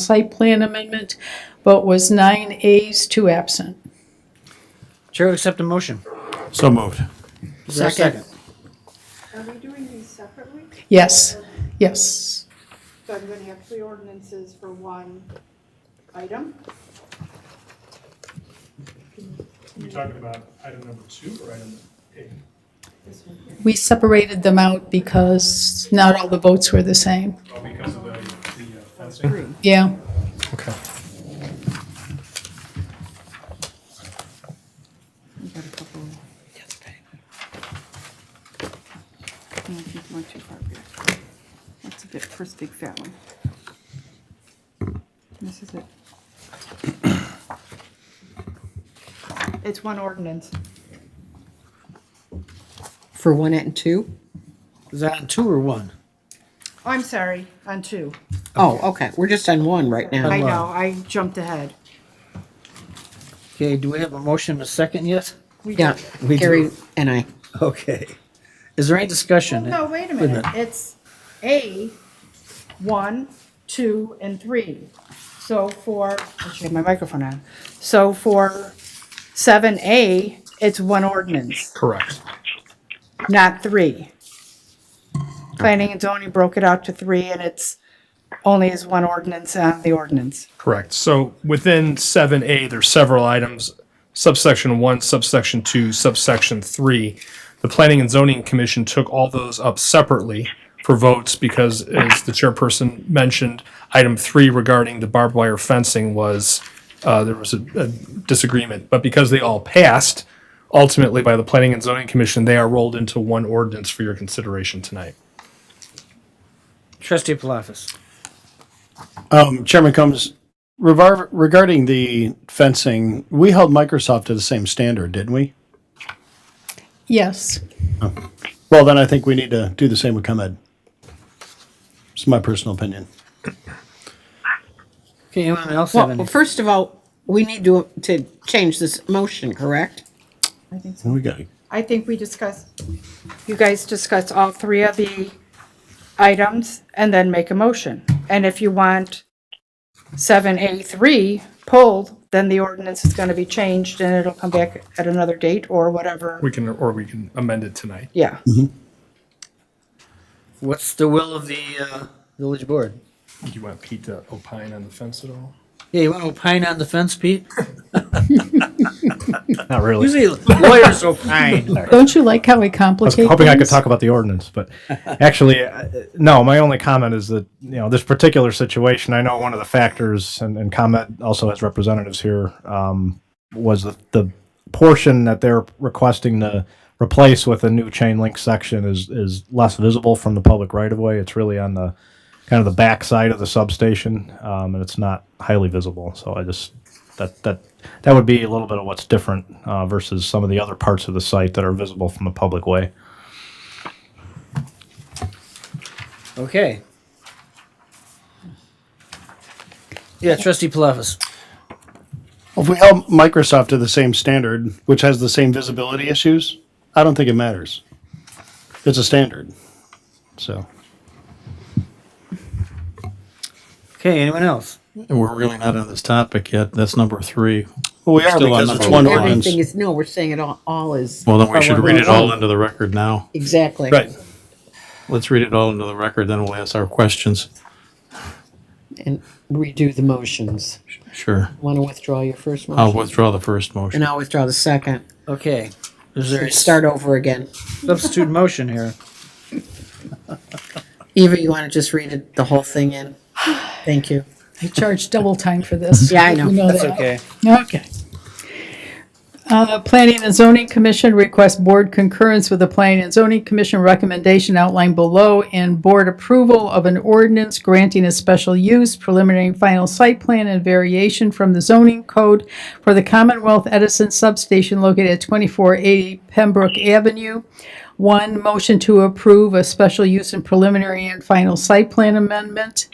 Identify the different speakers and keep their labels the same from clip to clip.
Speaker 1: site plan amendment. Vote was nine ayes, two absent.
Speaker 2: Chair will accept a motion.
Speaker 3: So moved.
Speaker 2: Is there a
Speaker 4: Second.
Speaker 5: Are we doing these separately?
Speaker 1: Yes, yes.
Speaker 5: So I'm gonna have three ordinances for one item?
Speaker 6: Are you talking about item number two or item A?
Speaker 5: This one here.
Speaker 1: We separated them out because not all the votes were the same.
Speaker 6: Oh, because of the, the uh, fencing?
Speaker 1: Yeah.
Speaker 3: Okay.
Speaker 4: We got a couple. No, I think we're too far back. That's a bit, first big fat one. This is it. It's one ordinance.
Speaker 7: For one and two?
Speaker 2: Is that on two or one?
Speaker 4: Oh, I'm sorry, on two.
Speaker 7: Oh, okay, we're just on one right now.
Speaker 4: I know, I jumped ahead.
Speaker 2: Okay, do we have a motion and a second yet?
Speaker 4: We
Speaker 7: Yeah,
Speaker 4: did.
Speaker 2: We do.
Speaker 7: Gary and I.
Speaker 2: Okay. Is there any discussion?
Speaker 4: Oh, No, wait a
Speaker 2: Wait a
Speaker 4: minute, it's A, one, two, and three. So for, I should have my microphone on. So for seven A, it's one ordinance,
Speaker 3: Correct.
Speaker 4: not three. Planning and zoning broke it out to three, and it's only is one ordinance on the ordinance.
Speaker 6: Correct. So within seven A, there's several items, subsection one, subsection two, subsection three. The Planning and Zoning Commission took all those up separately for votes because as the chairperson mentioned, item three regarding the barbed wire fencing was, uh, there was a a disagreement. But because they all passed, ultimately by the Planning and Zoning Commission, they are rolled into one ordinance for your consideration tonight.
Speaker 2: Trustee Palafis.
Speaker 3: Um, Chairman Combs, revar- regarding the fencing, we held Microsoft to the same standard, didn't we?
Speaker 1: Yes.
Speaker 3: Well, then I think we need to do the same with ComEd. It's my personal opinion.
Speaker 2: Okay, anyone else have
Speaker 7: Well,
Speaker 2: any?
Speaker 7: first of all, we need to, to change this motion, correct?
Speaker 4: I think so.
Speaker 3: We got it.
Speaker 4: I think we discussed, you guys discuss all three of the items and then make a motion. And if you want 7A3 pulled, then the ordinance is going to be changed and it'll come back at another date or whatever.
Speaker 6: We can, or we can amend it tonight.
Speaker 4: Yeah.
Speaker 2: What's the will of the, uh, village board?
Speaker 6: Do you want Pete to opine on the fence at all?
Speaker 2: Yeah, you want to opine on the fence, Pete?
Speaker 8: Not really.
Speaker 2: Usually lawyers opine.
Speaker 1: Don't you like how we
Speaker 8: I was
Speaker 1: complicate
Speaker 8: hoping I could
Speaker 1: things?
Speaker 8: talk about the ordinance, but actually, uh, no, my only comment is that, you know, this particular situation, I know one of the factors, and, and ComEd also has representatives here, um, was the, the portion that they're requesting to replace with a new chain link section is, is less visible from the public right of way. It's really on the, kind of the back side of the substation, um, and it's not highly visible. So I just, that, that, that would be a little bit of what's different, uh, versus some of the other parts of the site that are visible from the public way.
Speaker 2: Okay. Yeah, trustee Palafis.
Speaker 3: If we held Microsoft to the same standard, which has the same visibility issues, I don't think it matters. It's a standard. So.
Speaker 2: Okay, anyone else?
Speaker 9: And we're really not on this topic yet. That's number three.
Speaker 3: Well, we are
Speaker 9: Still on
Speaker 3: because it's
Speaker 9: number
Speaker 3: one
Speaker 9: one.
Speaker 3: ordinance.
Speaker 7: Everything is, no, we're saying it all, all is,
Speaker 9: Oh, Well, then we should read it all into the record now.
Speaker 7: exactly.
Speaker 3: Right.
Speaker 9: Let's read it all into the record, then we'll ask our questions.
Speaker 7: And redo the motions.
Speaker 9: Sure.
Speaker 7: Want to withdraw your first
Speaker 9: I'll
Speaker 7: motion?
Speaker 9: withdraw the first
Speaker 7: And
Speaker 9: motion.
Speaker 7: I'll withdraw the second.
Speaker 2: Okay, is there a
Speaker 7: Start over again.
Speaker 2: substitute motion here?
Speaker 7: Eva, you want to just read it, the whole thing in? Thank you.
Speaker 1: I charge double time for this.
Speaker 7: Yeah, I know.
Speaker 1: You know
Speaker 2: That's
Speaker 1: that.
Speaker 2: okay.
Speaker 1: Okay. Uh, Planning and Zoning Commission requests board concurrence with the Planning and Zoning Commission recommendation outlined below and board approval of an ordinance granting a special use preliminary and final site plan and variation from the zoning code for the Commonwealth Edison Substation located at 2480 Pembroke Avenue. One, motion to approve a special use and preliminary and final site plan amendment.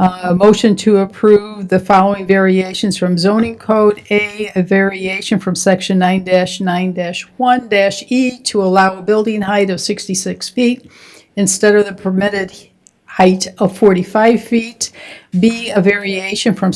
Speaker 1: A motion to approve the following variations from zoning code. A, a variation from section nine nine one E to allow a building height of sixty-six feet instead of the permitted height of 45 feet. B, a variation from